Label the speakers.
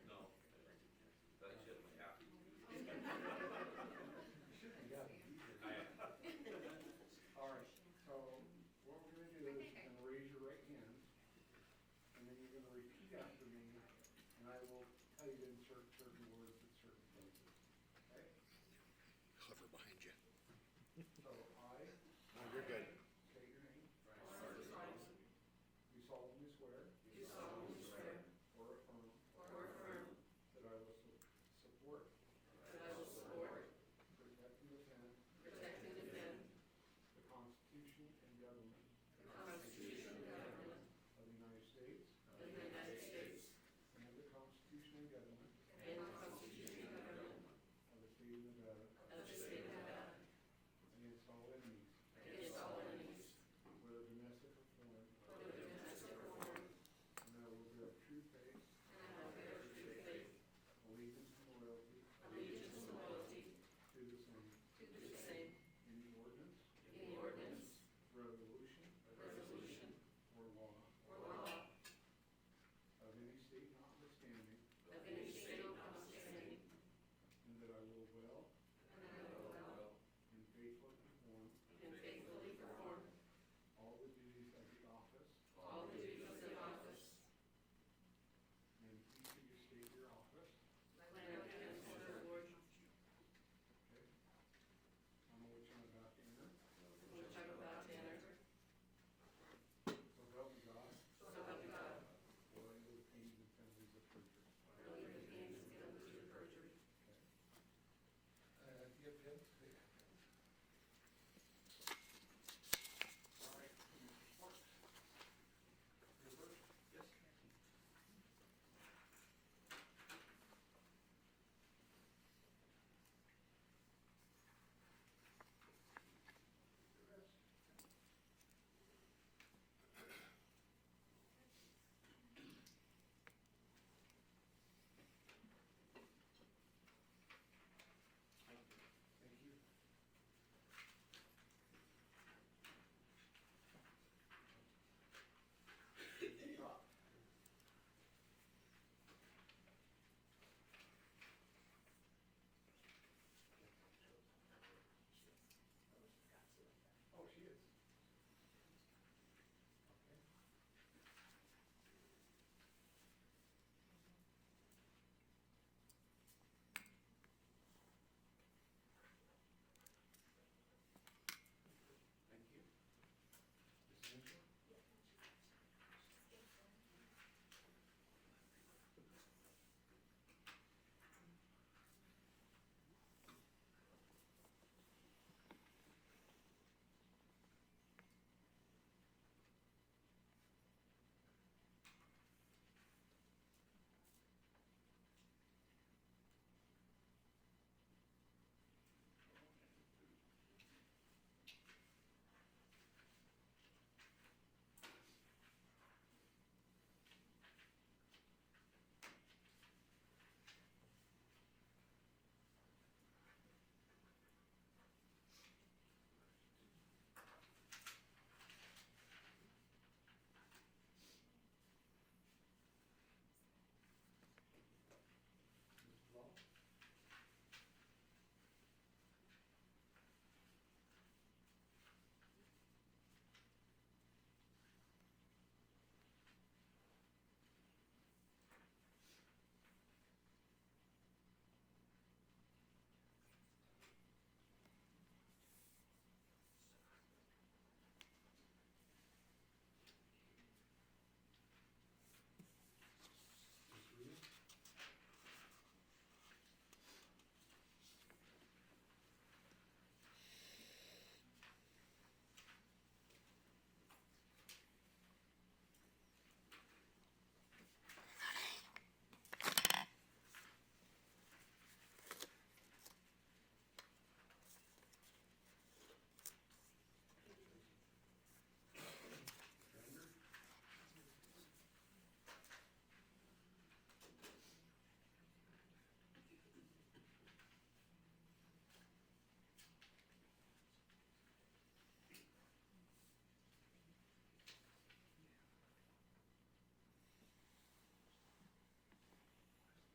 Speaker 1: suggest to me, and I will tell you to insert certain words at certain places, okay?
Speaker 2: hover behind you.
Speaker 1: So